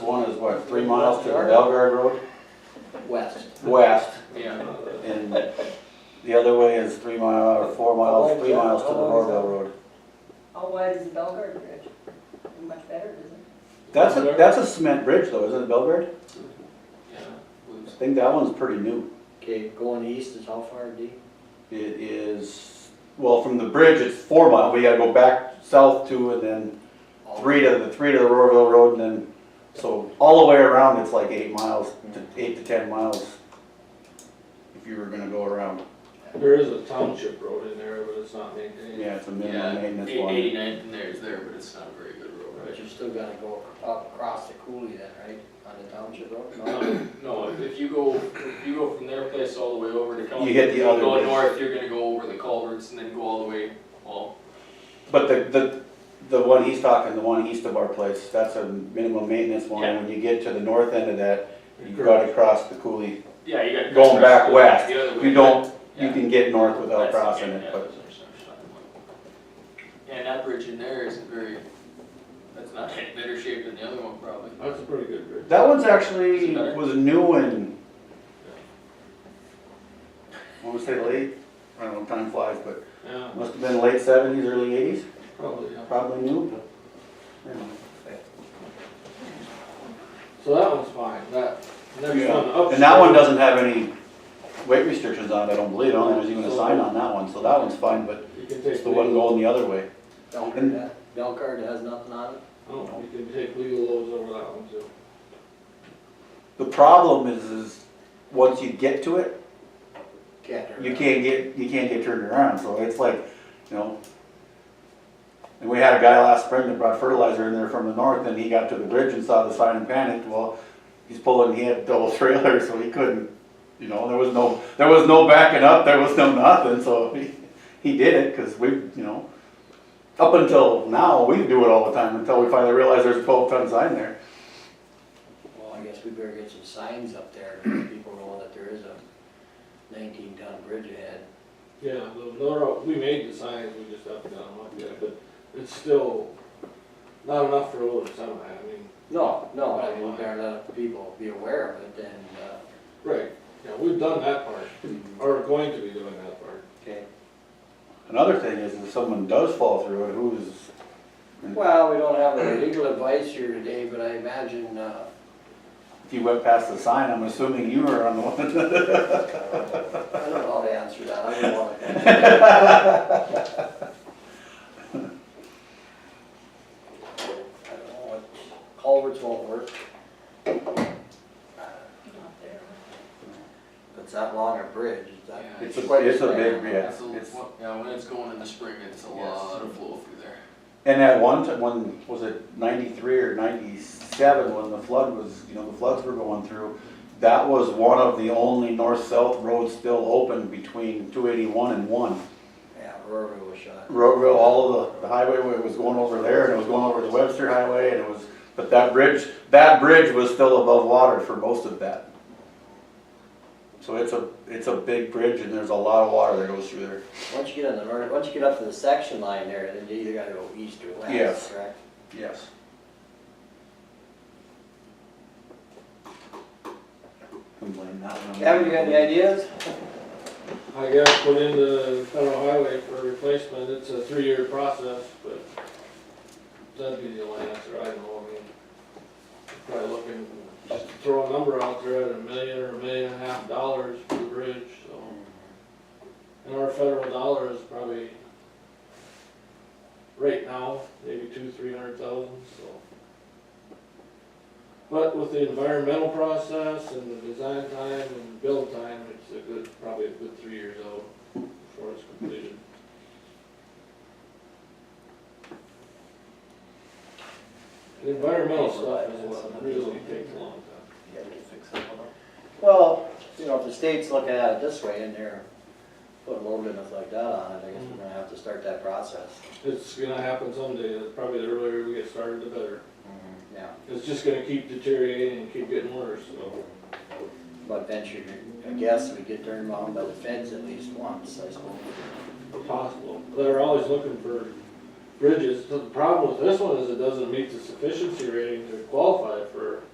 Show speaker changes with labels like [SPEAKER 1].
[SPEAKER 1] what, three miles to the Belgrade Road?
[SPEAKER 2] west.
[SPEAKER 1] West,
[SPEAKER 3] Yeah,
[SPEAKER 1] and the other way is three mile, or four miles, three miles to the Norville Road.
[SPEAKER 4] How wide Oh, is the Belgrade Bridge? Much better, isn't it?
[SPEAKER 1] That's a, that's a cement bridge though, isn't it, Belgrade?
[SPEAKER 3] yeah.
[SPEAKER 1] I
[SPEAKER 3] Blues.
[SPEAKER 1] think that one's pretty new.
[SPEAKER 2] Okay, going east is how far, D?
[SPEAKER 1] It is, well, from the bridge, it's four mile, we gotta go back south two and then three to the, three to the Royalville Road and then, so all the way around, it's like eight miles, to eight to ten miles. If you were gonna go around,
[SPEAKER 5] There is a township road in there, but it's not maintained.
[SPEAKER 1] yeah, it's a
[SPEAKER 3] Yeah,
[SPEAKER 1] minimum maintenance
[SPEAKER 3] eight-
[SPEAKER 1] one.
[SPEAKER 3] eighty-nine from there is there, but it's not a very good road,
[SPEAKER 2] But
[SPEAKER 3] right?
[SPEAKER 2] you still gotta go up across the coulee then, right, on the township road? No?
[SPEAKER 3] No, No, if- if you go, if you go from their place all the way over to California.
[SPEAKER 1] You hit the other
[SPEAKER 3] Go
[SPEAKER 1] way.
[SPEAKER 3] north, you're gonna go over the culverts and then go all the way, well,
[SPEAKER 1] But the, the, the one he's talking, the one east of our place, that's a minimum maintenance one, and when you get to the north end of that, you gotta cross the coulee.
[SPEAKER 3] yeah, you got.
[SPEAKER 1] Going back west,
[SPEAKER 3] The other way,
[SPEAKER 1] You don't,
[SPEAKER 3] but-
[SPEAKER 1] you
[SPEAKER 3] yeah.
[SPEAKER 1] can get north without
[SPEAKER 3] That's-
[SPEAKER 1] crossing
[SPEAKER 3] yeah,
[SPEAKER 1] it,
[SPEAKER 3] yeah,
[SPEAKER 1] but.
[SPEAKER 3] that's what I'm saying. And that bridge in there isn't very, that's not in better shape than the other one probably.
[SPEAKER 5] That's a pretty good bridge.
[SPEAKER 1] That one's actually,
[SPEAKER 3] Is it better?
[SPEAKER 1] was new and, I wanna say late, I don't know, time flies, but
[SPEAKER 5] Yeah,
[SPEAKER 1] must have been late seventies, early eighties,
[SPEAKER 5] probably, yeah.
[SPEAKER 1] probably new.
[SPEAKER 5] So that one's fine, that, next
[SPEAKER 1] Yeah.
[SPEAKER 5] one up.
[SPEAKER 1] And that one doesn't have any weight restrictions on it, I don't believe, I don't think there's even a sign on that one, so that one's fine, but
[SPEAKER 5] You can
[SPEAKER 1] it's
[SPEAKER 5] take
[SPEAKER 1] the one
[SPEAKER 5] legal,
[SPEAKER 1] going the other way.
[SPEAKER 2] Belgrade, uh, Belgrade has nothing on it?
[SPEAKER 5] oh, you can take legal loads over that one too.
[SPEAKER 1] The problem is, is once you get to it,
[SPEAKER 2] Can't. turn
[SPEAKER 1] you
[SPEAKER 2] around.
[SPEAKER 1] can't get, you can't get turned around, so it's like, you know. And we had a guy last spring that brought fertilizer in there from the north, and he got to the bridge and saw the sign and panicked, well, he's pulling, he had double trailer, so he couldn't, you know, there was no, there was no backing up, there was no nothing, so he, he did it, cause we, you know. Up until now, we do it all the time, until we finally realize there's a twelve ton sign there.
[SPEAKER 2] Well, I guess we better get some signs up there, to let people know that there is a nineteen ton bridge ahead.
[SPEAKER 5] Yeah, the, the, road- we made the signs, we just up and down like that, but it's still not enough for a little semi, I mean,
[SPEAKER 2] No, no, I mean, we better let people be aware of it and, uh,
[SPEAKER 5] right, yeah, we've done that part, or going to be doing that part.
[SPEAKER 2] okay.
[SPEAKER 1] Another thing is, if someone does fall through it, who's,
[SPEAKER 2] Well, we don't have any legal advice here today, but I imagine, uh,
[SPEAKER 1] if you went past the sign, I'm assuming you were on the one
[SPEAKER 2] I don't know how to answer that, I don't wanna. I don't know what, culverts won't work,
[SPEAKER 4] Not there.
[SPEAKER 2] but it's that long a bridge, it's that.
[SPEAKER 3] Yeah.
[SPEAKER 1] It's a, it's a big, yeah,
[SPEAKER 3] That's a-
[SPEAKER 1] it's,
[SPEAKER 3] Yeah, when it's going in the spring, it's a lot of flow through there.
[SPEAKER 1] and at one time, when, was it ninety-three or ninety-seven, when the flood was, you know, the floods were going through, that was one of the only north-south roads still open between two eighty-one and one.
[SPEAKER 2] Yeah, Rory was shot.
[SPEAKER 1] Roadville, all of the, the highway was going over there, and it was going over the Webster Highway, and it was, but that bridge, that bridge was still above water for most of that. So it's a, it's a big bridge, and there's a lot of water that goes through there.
[SPEAKER 2] Once you get on the, ver- once you get up to the section line there, then you either gotta go east or
[SPEAKER 1] Yes.
[SPEAKER 2] west, correct?
[SPEAKER 1] Yes. Can blame that one on me.
[SPEAKER 2] Haven't you got any ideas?
[SPEAKER 5] I got put in the federal highway for replacement, it's a three-year process, but that'd be the only answer I know, I mean. Probably looking, just throw a number out there at a million or a million and a half dollars for the bridge, so. And our federal dollar is probably, right now, maybe two, three hundred thousand, so. But with the environmental process and the design time and build time, it's a good, probably a good three years out before it's completed. The Environmental stuff is what really takes a long time.
[SPEAKER 2] Well, you know, if the state's looking at it this way and they're putting low limits like that on it, I guess we're gonna have to start that process.
[SPEAKER 5] It's gonna happen someday, probably the earlier we get started, the better.
[SPEAKER 2] Yeah,
[SPEAKER 5] It's just gonna keep deteriorating and keep getting worse, so.
[SPEAKER 2] but venture, I guess we get turned on by the feds at least once, I suppose.
[SPEAKER 5] possible. They're always looking for bridges. The problem with this one is it doesn't meet the sufficiency rating to qualify for